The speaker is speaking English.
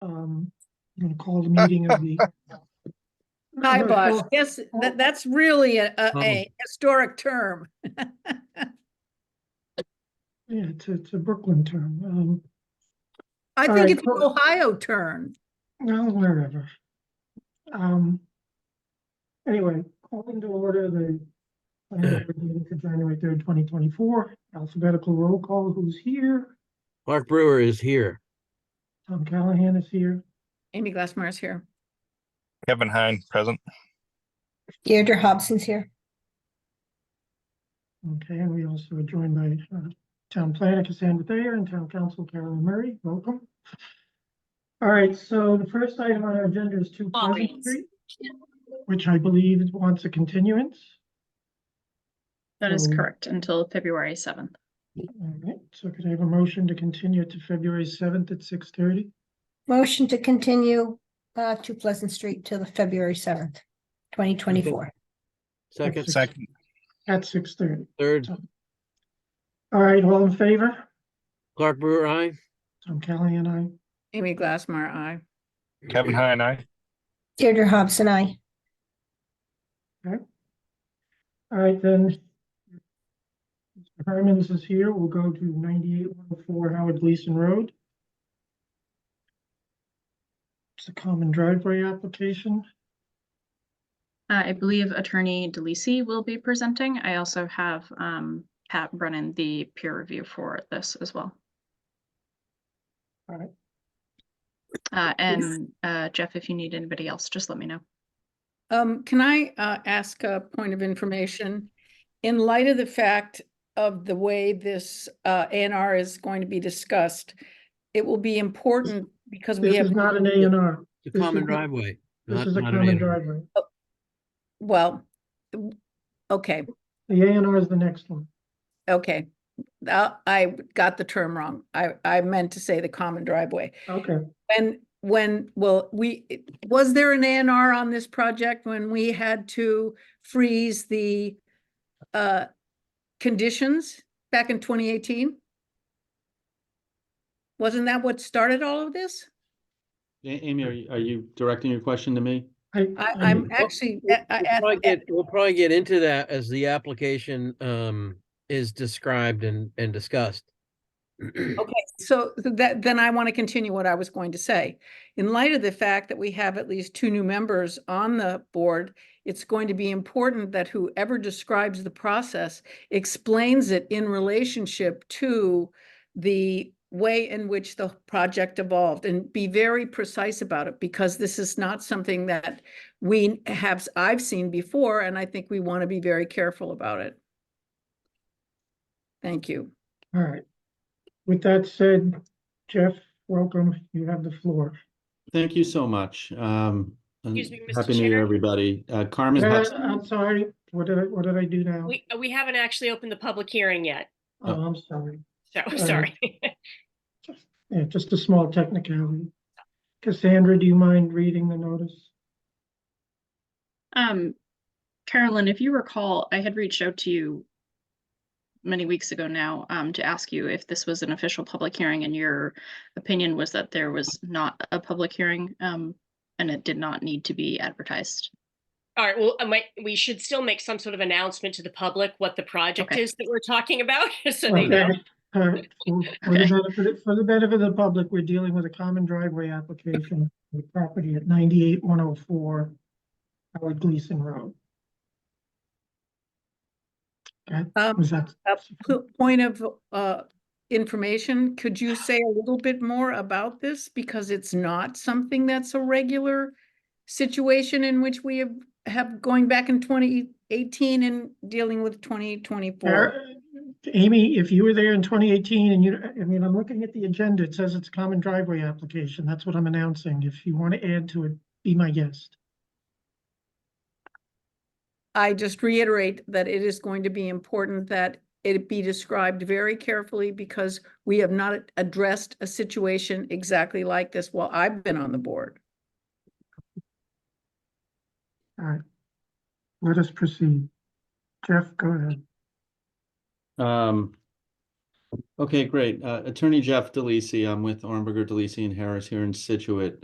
I'm gonna um, call the meeting of the, My Or- boss, or- yes, or- that, that's really a, a- Oh, a historic term. yeah, it's, it's a Brooklyn term, um, I All think right, it's an cool. Ohio term. well, wherever. Um, anyway, calling to order the planning board meeting for January third, twenty twenty-four, alphabetical roll call, who's here? Mark Brewer is here. Tom Callahan is here, Amy Glassmar is here. Kevin Hine, present. Deirdre Hobson's here. okay, and we also are joined by, uh, town planner Cassandra Thayer and town council Carolyn Murray, welcome. All right, so the first item on our agenda is two Pleasant Audience. Street, which I believe wants a continuance. That is So- correct, until February seventh. All right, so could I have a motion to continue to February seventh at six thirty? Motion to continue uh to Pleasant Street till the February seventh, twenty twenty-four. Second, Six- Second, At six thirty. third, All right, all in favor? Clark Brewer, aye. Tom Callahan, I. Amy Glassmar, I. Kevin Hine, aye. Deirdre Hobson, I. All right, then. Mr. Herman's is here. We'll go to ninety-eight one oh four Howard Gleason Road. It's a common driveway application. Uh, I believe Attorney DeLisi will be presenting. I also have um Pat Brennan, the peer review for this as well. All right. Uh, and uh, Jeff, if you need anybody else, just let me know. Um, can I, uh, ask a point of information? In light of the fact of the way this, uh, A and R is going to be discussed, it will be important because we This have. is not an A and R. The This is common a- driveway. This not- is a not an common A&R. driveway. Well, w- okay, The A and R is the next one. okay. Uh, I got the term wrong. I, I meant to say the common driveway. Okay. When, when, well, we, was there an A and R on this project when we had to freeze the uh, conditions back in twenty eighteen? Wasn't that what started all of this? A- Amy, are you, are you directing your question to me? I, I- I'm actually, I- I Uh, Um, We'll asked probably that- get- We'll probably get into that as the application um is described and and discussed. Okay, so th- that, then I want to continue what I was going to say. In light of the fact that we have at least two new members on the board, it's going to be important that whoever describes the process explains it in relationship to the way in which the project evolved and be very precise about it because this is not something that we have, I've seen before, and I think we want to be very careful about it. Thank you. All right. With that said, Jeff, welcome. You have the floor. Thank you so much. Um, and Excuse me, Mr. Happy New Year, Chair. everybody. Uh, Carmen Uh, Hudson, I'm sorry, what did I, what did I do now? We, we haven't actually opened the public hearing yet, Oh, I'm sorry. so, right. sorry. Yeah, just a small technicality. Cassandra, do you mind reading the notice? Um, Carolyn, if you recall, I had reached out to you many weeks ago now um, to ask you if this was an official public hearing, and your opinion was that there was not a public hearing um, and it did not need to be advertised. All right, well, I might, we should still make some sort of announcement to the public what the project Okay. is that we're talking about, so they know. Okay. All right, for Uh, for the Okay. benefit, for the benefit of the public, we're dealing with a common driveway application with property at ninety-eight one oh four Howard Gleason Road. Um, Was that? Uh, po- Point of uh, information, could you say a little bit more about this? Because it's not something that's a regular situation in which we have, have going back in 2018 and dealing with 2024. Or- Amy, if you were there in twenty eighteen and you, I mean, I'm looking at the agenda, it says it's a common driveway application, that's what I'm announcing. If you want to add to it, be my guest. I just reiterate that it is going to be important that it be described very carefully because we have not addressed a situation exactly like this while I've been on the board. All right. Let us proceed. Jeff, go ahead. Um, okay, great. Uh, Attorney Jeff DeLisi, I'm with Ornberger, DeLisi and Harris here in Situate.